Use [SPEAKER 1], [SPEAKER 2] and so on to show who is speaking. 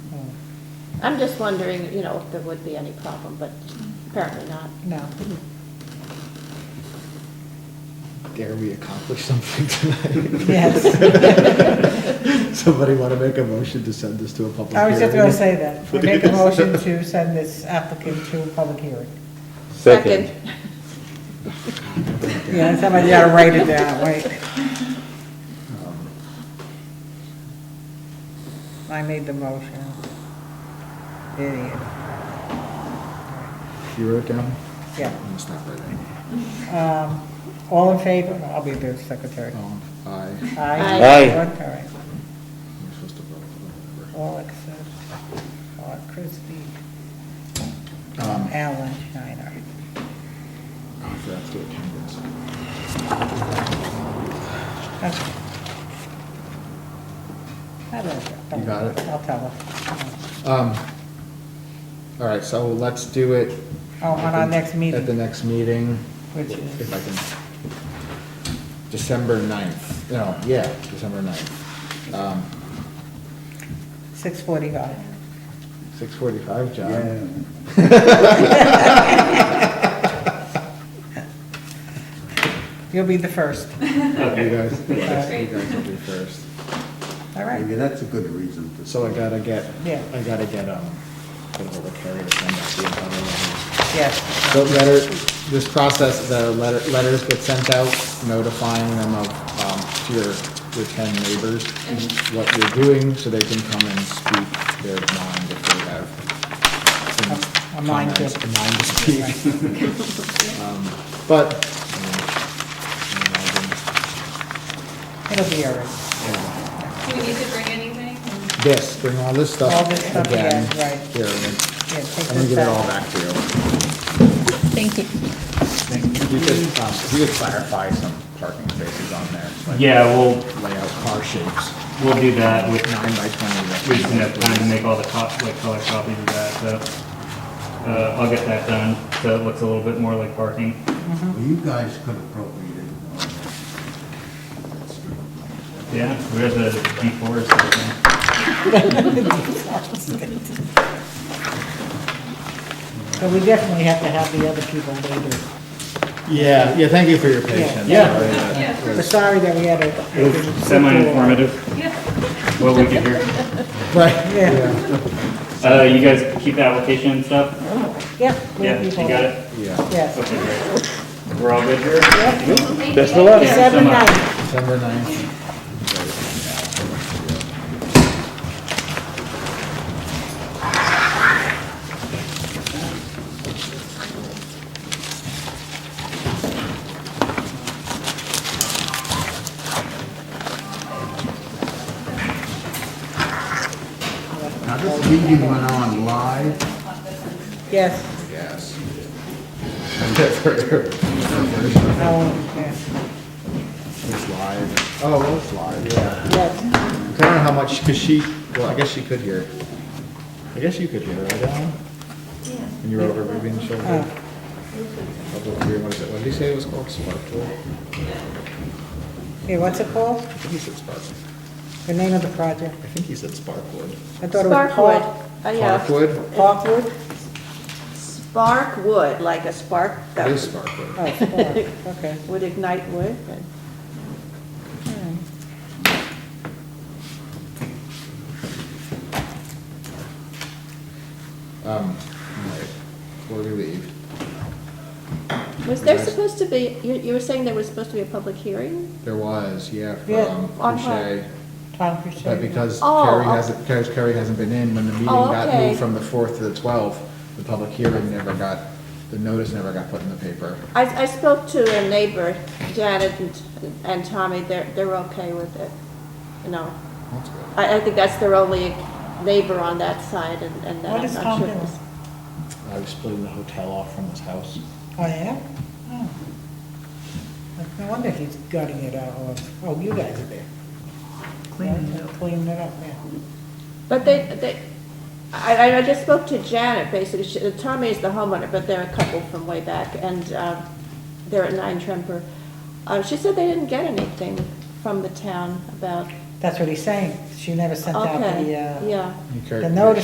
[SPEAKER 1] I'm just wondering, you know, if there would be any problem, but apparently not.
[SPEAKER 2] No.
[SPEAKER 3] Dare we accomplish something tonight?
[SPEAKER 2] Yes.
[SPEAKER 3] Somebody want to make a motion to send this to a public hearing?
[SPEAKER 2] I was just going to say that. We make a motion to send this applicant to a public hearing.
[SPEAKER 4] Second.
[SPEAKER 2] Yeah, somebody got to write it down, wait.
[SPEAKER 3] Um,
[SPEAKER 2] I made the motion. Idiot.
[SPEAKER 3] You wrote it down?
[SPEAKER 2] Yeah.
[SPEAKER 3] I'm gonna stop right there.
[SPEAKER 2] Um, All in favor? I'll be the secretary.
[SPEAKER 3] Um, Aye.
[SPEAKER 1] Aye.
[SPEAKER 4] Aye.
[SPEAKER 2] All right.
[SPEAKER 3] I'm supposed to vote for
[SPEAKER 2] All except, all Christie,
[SPEAKER 3] that. Um,
[SPEAKER 2] Alan Schneider.
[SPEAKER 3] I forgot to do attendance.
[SPEAKER 2] Okay. I don't know.
[SPEAKER 3] You got it?
[SPEAKER 2] I'll tell her.
[SPEAKER 3] Um, All right, so let's do it.
[SPEAKER 2] Oh, on our next
[SPEAKER 3] At the
[SPEAKER 2] meeting,
[SPEAKER 3] next meeting.
[SPEAKER 2] Which is-
[SPEAKER 3] If I can, December 9th, no, yeah, December 9th. Um,
[SPEAKER 2] 6:45.
[SPEAKER 3] 6:45, John.
[SPEAKER 2] You'll be the first.
[SPEAKER 3] You guys, you guys will be first.
[SPEAKER 2] All
[SPEAKER 5] Maybe
[SPEAKER 2] right.
[SPEAKER 5] that's a good reason to.
[SPEAKER 3] So I gotta get,
[SPEAKER 2] Yeah.
[SPEAKER 3] I gotta get, um, get hold of Carrie to send out the abutter letters.
[SPEAKER 2] Yes.
[SPEAKER 3] So letter, this process, the letter, letters get sent out notifying them of, um, to your, your ten neighbors,
[SPEAKER 2] Mm-hmm.
[SPEAKER 3] what you're doing, so they can come and speak their mind if they have
[SPEAKER 2] A- a
[SPEAKER 3] some
[SPEAKER 2] mind
[SPEAKER 3] comments,
[SPEAKER 2] to-
[SPEAKER 3] a mind to speak. Um, But, um, you know, I've been-
[SPEAKER 2] It'll be all right.
[SPEAKER 6] Do we need to bring anything?
[SPEAKER 3] This, bring all this stuff
[SPEAKER 2] All this stuff, yeah,
[SPEAKER 3] again.
[SPEAKER 2] right.
[SPEAKER 3] Here, I'm
[SPEAKER 2] Yeah, take
[SPEAKER 3] gonna
[SPEAKER 2] this
[SPEAKER 3] give it all
[SPEAKER 2] back.
[SPEAKER 3] back to you.
[SPEAKER 1] Thank you.
[SPEAKER 3] You could, um, you could clarify some parking spaces on there. like
[SPEAKER 7] Yeah, we'll,
[SPEAKER 3] Layout car shapes,
[SPEAKER 7] we'll do that. We
[SPEAKER 3] nine by twenty.
[SPEAKER 7] we just enough time to make all the cop, like color copies of that, so, uh, I'll get that done, so it looks a little bit more like parking.
[SPEAKER 5] Well, You guys could appropriate it. all that. That's true.
[SPEAKER 7] Yeah, we have the deforestation.
[SPEAKER 2] So we definitely have to have the other people later.
[SPEAKER 3] Yeah, yeah, thank you for your patience.
[SPEAKER 7] Yeah.
[SPEAKER 3] Sorry, uh,
[SPEAKER 6] Yeah, of
[SPEAKER 2] We're
[SPEAKER 6] course.
[SPEAKER 2] sorry that we had a.
[SPEAKER 7] It was semi-informative,
[SPEAKER 6] Yeah.
[SPEAKER 7] what we could hear.
[SPEAKER 3] Right,
[SPEAKER 2] Yeah.
[SPEAKER 3] yeah,
[SPEAKER 7] Uh, you guys keep the application and stuff?
[SPEAKER 2] Yeah. we
[SPEAKER 7] Yeah,
[SPEAKER 2] have
[SPEAKER 7] you
[SPEAKER 2] people.
[SPEAKER 7] got it?
[SPEAKER 3] yeah,
[SPEAKER 2] Yes.
[SPEAKER 7] Okay, great. We're all good here?
[SPEAKER 6] Thank
[SPEAKER 4] Best of
[SPEAKER 6] you.
[SPEAKER 4] luck.
[SPEAKER 7] so
[SPEAKER 2] Seven
[SPEAKER 7] much.
[SPEAKER 2] nine.
[SPEAKER 3] December ninth.
[SPEAKER 5] Now, this meeting went on live.
[SPEAKER 2] Yes.
[SPEAKER 3] Yes. It's
[SPEAKER 2] Oh, yeah.
[SPEAKER 3] live. Oh, well, it's live, yeah.
[SPEAKER 2] Yes.
[SPEAKER 3] I don't know how much, cause she, well, I guess she could hear. I guess you could hear, right, Alan? When you were over Ruby's shoulder.
[SPEAKER 2] Oh.
[SPEAKER 3] Public hearing, what is it, what did he say it was called, Spark Tool?
[SPEAKER 2] Hey, what's it called?
[SPEAKER 3] I think he said Spark, I
[SPEAKER 2] The name of the project?
[SPEAKER 3] think he said Sparkwood.
[SPEAKER 2] I thought it was
[SPEAKER 1] Sparkwood,
[SPEAKER 2] Park.
[SPEAKER 1] Uh, yeah,
[SPEAKER 3] Parkwood?
[SPEAKER 2] Parkwood?
[SPEAKER 1] sparkwood, like a spark
[SPEAKER 3] It
[SPEAKER 1] that
[SPEAKER 3] is Sparkwood.
[SPEAKER 2] Oh, Spark, okay.
[SPEAKER 1] would ignite wood, and
[SPEAKER 3] Um, all right, before we leave.
[SPEAKER 1] Was there
[SPEAKER 3] Yes.
[SPEAKER 1] supposed to be, you, you were saying there was supposed to be a public hearing?
[SPEAKER 3] There was, yeah,
[SPEAKER 2] Yeah,
[SPEAKER 3] from
[SPEAKER 1] on
[SPEAKER 3] Boucher,
[SPEAKER 2] Tom Purcell.
[SPEAKER 3] but because
[SPEAKER 1] Oh,
[SPEAKER 3] Carrie
[SPEAKER 1] oh.
[SPEAKER 3] hasn't, because Carrie hasn't been in, when the meeting
[SPEAKER 1] Oh,
[SPEAKER 3] got
[SPEAKER 1] okay.
[SPEAKER 3] moved from the fourth to the twelfth, the public hearing never got, the notice never got put in the paper.
[SPEAKER 1] I, I spoke to a neighbor, Janet and, and Tommy, they're, they're okay with it, you know.
[SPEAKER 3] That's good.
[SPEAKER 1] I, I think that's their only neighbor on that side, and, and that
[SPEAKER 2] What
[SPEAKER 1] I'm
[SPEAKER 2] is
[SPEAKER 1] not
[SPEAKER 2] Tom
[SPEAKER 1] sure.
[SPEAKER 2] doing?
[SPEAKER 1] was-
[SPEAKER 3] I was splitting the hotel off from his house.
[SPEAKER 2] Oh, yeah? Oh. No wonder he's gutting it out, or, oh, you guys are there. Cleaning it up. Cleaning it up, yeah.
[SPEAKER 1] But they, they, I, I- I just spoke to Janet, basically, She- Tommy is the homeowner, but they're a couple from way back, and, um, they're at Nine Tremper. Uh, she said they didn't get anything from the town about,
[SPEAKER 2] That's what he's saying. She never sent out the,
[SPEAKER 1] okay,
[SPEAKER 2] uh,
[SPEAKER 1] yeah.
[SPEAKER 3] You care-
[SPEAKER 2] the notice